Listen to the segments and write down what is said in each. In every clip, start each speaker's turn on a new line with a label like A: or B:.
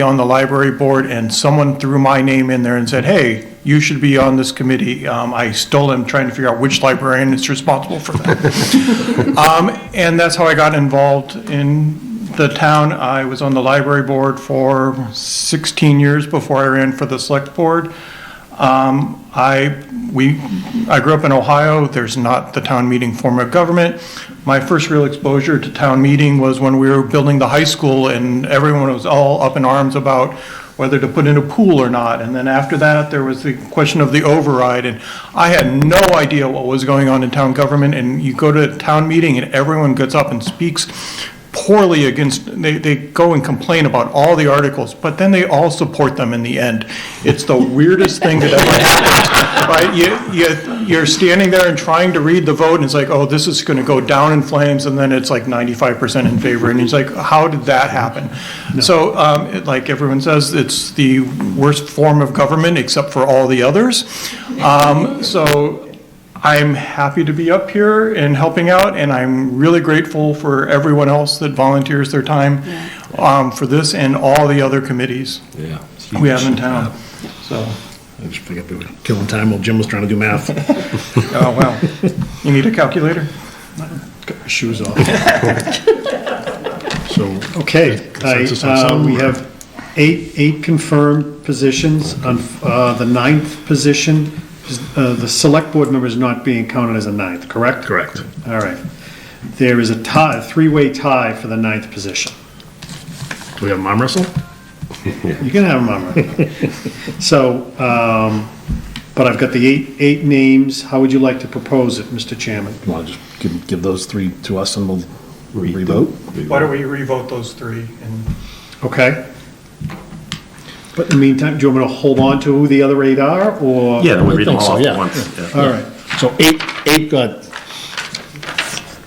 A: on the library board, and someone threw my name in there and said, hey, you should be on this committee. Um, I still am trying to figure out which librarian is responsible for that. Um, And that's how I got involved in the town. I was on the library board for 16 years before I ran for the select board. Um, I, we, I grew up in Ohio, there's not the town meeting form of government. My first real exposure to town meeting was when we were building the high school and everyone was all up in arms about whether to put in a pool or not. And then after that, there was the question of the override, and I had no idea what was going on in town government. And you go to a town meeting and everyone gets up and speaks poorly against, they, they go and complain about all the articles, but then they all support them in the end. It's the weirdest thing that ever happened, right? You, you, you're standing there and trying to read the vote, and it's like, oh, this is gonna go down in flames, and then it's like ninety-five percent in favor, and it's like, how did that happen? So, um, it- like everyone says, it's the worst form of government, except for all the others. Um, so, I'm happy to be up here and helping out, and I'm really grateful for everyone else that volunteers their time um, for this and all the other committees
B: Yeah.
A: we have in town. So,
C: I just figured we were killing time while Jim was trying to do math.
A: oh, wow. You need a calculator?
C: Got your shoes off. So, okay,
D: I,
C: consensus on
D: uh,
C: some?
D: we have eight, eight confirmed positions. On, uh, the ninth position, is, uh, the select board member is not being counted as a ninth, correct?
C: Correct.
D: All right. There is a tie, a three-way tie for the ninth position.
C: Do we have an arm wrestle?
D: You can have them on right. So, um, but I've got the eight, eight names. How would you like to propose it, Mr. Chairman?
C: Want to just give, give those three to us and we'll revote?
A: Why don't we revote those three? And
D: Okay? But in the meantime, do you want me to hold on to who the other eight are, or?
B: Yeah, then we read them
C: I think so,
B: all
C: yeah.
B: at once.
D: All right.
C: So eight, eight got,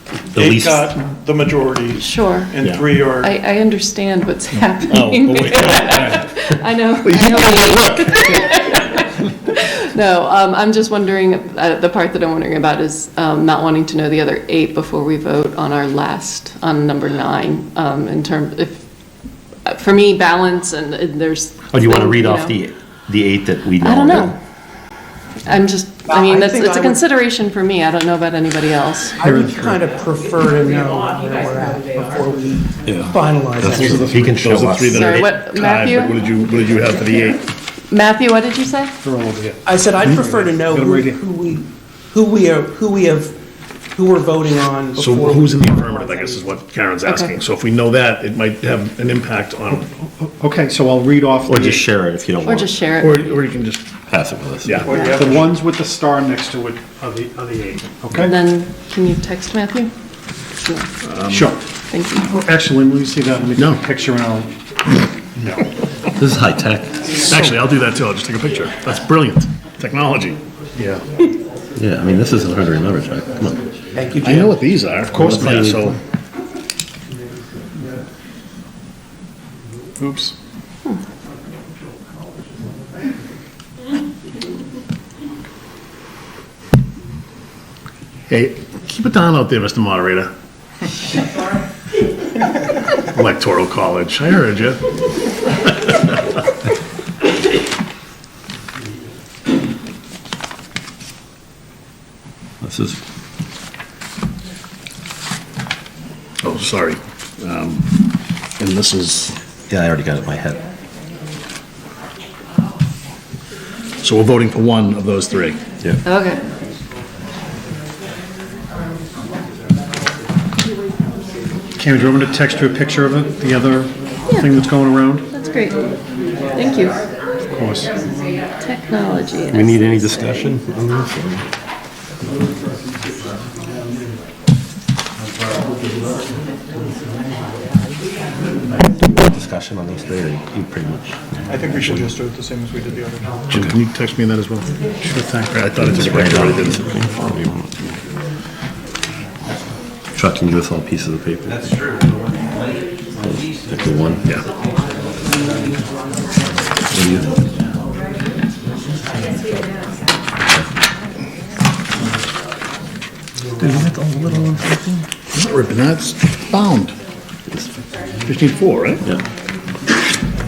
B: The
A: They
B: least,
A: got the majority,
E: Sure.
A: and
C: Yeah.
A: three are,
E: I, I understand what's
C: oh, oh,
E: happening.
C: wait,
E: I know. I know. No, um, I'm just wondering, uh, the part that I'm wondering about is um, not wanting to know the other eight before we vote on our last, on number nine, um, in term, if, uh, for me, balance and and there's.
B: oh, do you want to read off
E: know.
B: the, the eight that we know?
E: I don't
B: that-
E: know. I'm just, I
F: Well, I
E: mean, that's,
F: think
E: it's a
F: I would-
E: consideration for me. I don't know about anybody else.
F: I would kind of prefer to know where we're at before we finalize
B: He
F: it.
B: can- He can show
C: those are
B: us.
C: three that
E: Sorry,
C: are
E: what,
C: tied, but what
E: Matthew?
C: did you, what did you have for the eight?
E: Matthew, what did you say?
D: They're all over here.
F: I said I'd prefer to know
D: Got 'em
F: who
D: right here.
F: who we, who we are, who we have, who we're voting on
C: So
F: before.
C: who's in
F: we
C: the
F: finalize
C: affirmative, I guess is what Karen's asking. So if we know that, it might have an impact on,
D: Okay, so I'll read off
B: Or just
D: the,
B: share it if you don't
E: Or
B: want.
E: just share
C: or,
E: it?
C: or you can just,
B: Pass it with us.
C: yeah.
A: or you have-
D: the ones with the star next to it are the, are the eight,
E: And
D: okay?
E: then, can you text Matthew? No.
D: Sure.
E: Thank you.
D: Oh, Actually, let me see that, let me
C: No.
D: take a picture and I'll, no,
B: This is high tech.
C: Actually, I'll do that too. I'll just take a picture. That's brilliant. Technology.
D: yeah.
B: Yeah, I mean, this isn't hard to remember, Jack. Come on.
F: Thank you,
C: I know
F: Jim.
C: what these are. Of
B: course they are.
C: So. Oops. Hey, keep it down out there, Mr. Moderator. Electoral College, I heard you.
B: This is,
C: Oh, sorry. Um, And this is,
B: yeah, I already got it in my head.
C: so we're voting for one of those three.
E: Okay.
D: Cam, do you want me to text you a picture of it, the other thing that's going around?
E: That's great. Thank you.
D: Of course.
E: Technology.
B: Do we need any discussion on this? or- Discussion on those three, or you pretty much.
A: I think we should just do it the same as we did the other time.
C: Jim, can you text me that as well? Sure thing. I thought it just
B: Right
C: right
B: on.
C: out of it.
B: Chuck, can you give us all pieces of paper? That's true. one.
C: Yeah. Not ripping, that's bound. Just need four, right?
B: Yeah.